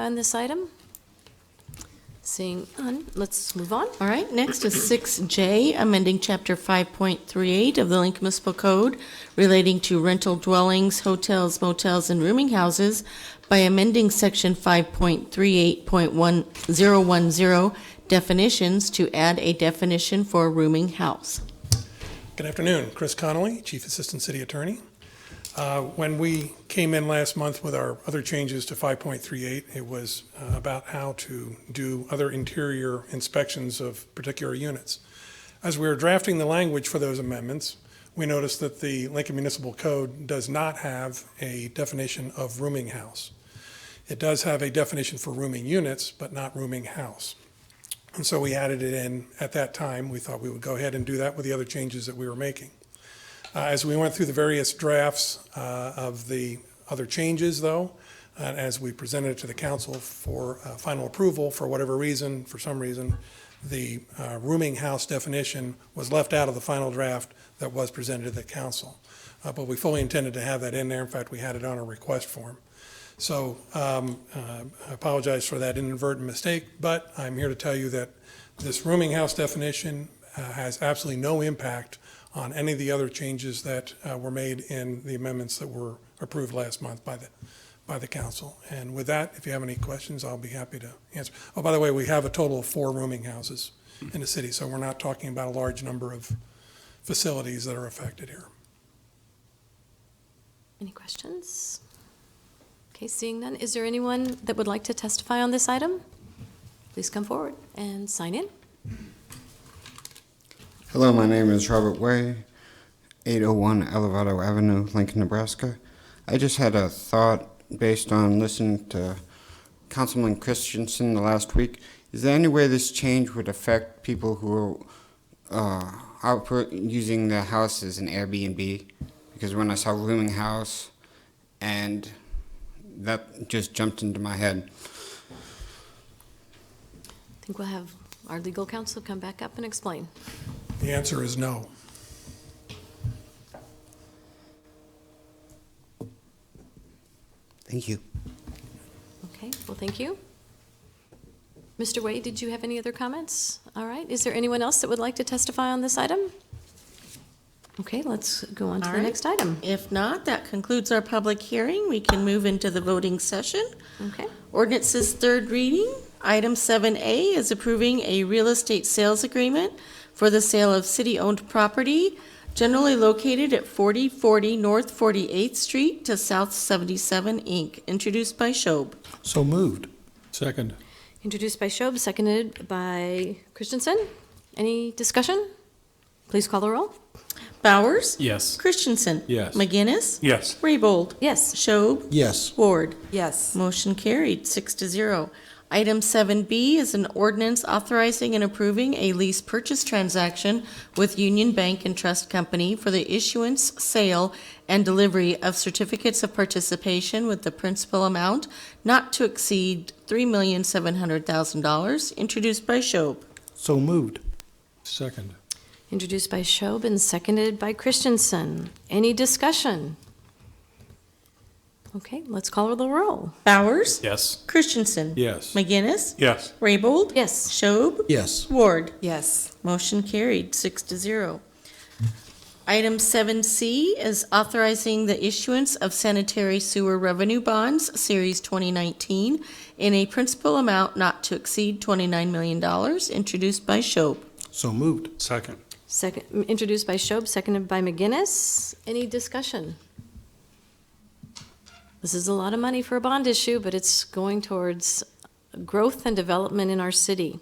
on this item? Seeing none, let's move on. All right, next is 6J, amending Chapter 5.38 of the Lincoln Municipal Code relating to rental dwellings, hotels, motels, and rooming houses by amending Section 5.38.1010 definitions to add a definition for a rooming house. Good afternoon. Chris Connolly, Chief Assistant City Attorney. Uh, When we came in last month with our other changes to 5.38, it was uh, about how to do other interior inspections of particular units. As we were drafting the language for those amendments, we noticed that the Lincoln Municipal Code does not have a definition of rooming house. It does have a definition for rooming units, but not rooming house. And so we added it in at that time. We thought we would go ahead and do that with the other changes that we were making. Uh, As we went through the various drafts uh, of the other changes, though, and as we presented it to the council for uh, final approval, for whatever reason, for some reason, the uh, rooming house definition was left out of the final draft that was presented to the council. Uh, But we fully intended to have that in there. In fact, we had it on a request form. So um, uh, I apologize for that inadvertent mistake, but I'm here to tell you that this rooming house definition uh, has absolutely no impact on any of the other changes that uh, were made in the amendments that were approved last month by the, by the council. And with that, if you have any questions, I'll be happy to answer. Oh, by the way, we have a total of four rooming houses in the city, so we're not talking about a large number of facilities that are affected here. Any questions? Okay, seeing none, is there anyone that would like to testify on this item? Please come forward and sign in. Hello, my name is Robert Way, 801 Elevado Avenue, Lincoln, Nebraska. I just had a thought based on listening to Councilman Christensen the last week. Is there any way this change would affect people who are uh, out for- using the house as an Airbnb? Because when I saw rooming house, and that just jumped into my head. I think we'll have our legal counsel come back up and explain. The answer is no. Thank you. Okay, well, thank you. Mr. Wade, did you have any other comments? All right, is there anyone else that would like to testify on this item? Okay, let's go on to All the right. next item. If not, that concludes our public hearing. We can move into the voting session. Okay, Ordinance's third reading. Item 7A is approving a real estate sales agreement for the sale of city-owned property generally located at 4040 North 48th Street to South 77 Inc., introduced by Shob. So moved. Second. introduced by Shob, seconded by Christensen. Any discussion? Please call the roll. Bowers? Yes. Christensen? Yes. McGinnis? Yes. Raybold? Yes. Shob? Yes. Ward? Yes, Motion carried, six to zero. Item seven B is an ordinance authorizing and approving a lease purchase transaction with Union Bank and Trust Company for the issuance, sale, and delivery of certificates of participation with the principal amount not to exceed three million seven hundred thousand dollars, introduced by Shob. So moved. Second. Introduced by Shob and seconded by Christensen. Any discussion? Okay, let's call the roll. Bowers? Yes. Christensen? Yes. McGinnis? Yes. Raybold? Yes. Shob? Yes. Ward? yes, Motion carried, six to zero. Item seven C is authorizing the issuance of sanitary sewer revenue bonds, Series 2019, in a principal amount not to exceed $29 million, introduced by Shob. So moved. Second. Second, introduced by Shob, seconded by McGinnis. Any discussion? This is a lot of money for a bond issue, but it's going towards growth and development in our city.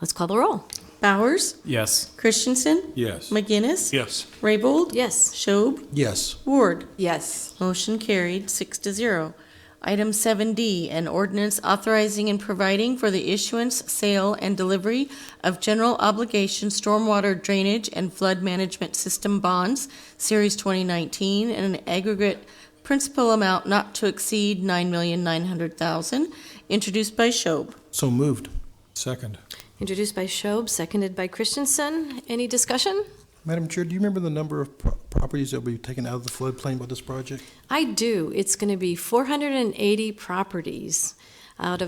Let's call the roll. Bowers, Yes. Christensen, Yes. McGinnis, Yes. Raybold, Yes. Shob, Yes. Ward. yes, Motion carried, six to zero. Item seven D, an ordinance authorizing and providing for the issuance, sale, and delivery of general obligation stormwater drainage and flood management system bonds, Series 2019, in an aggregate principal amount not to exceed $9,900,000, introduced by Shob. So moved. Second. Introduced by Shob, seconded by Christensen. Any discussion? Madam Chair, do you remember the number of pro- properties that will be taken out of the floodplain by this project? I do. It's going to be 480 properties. out of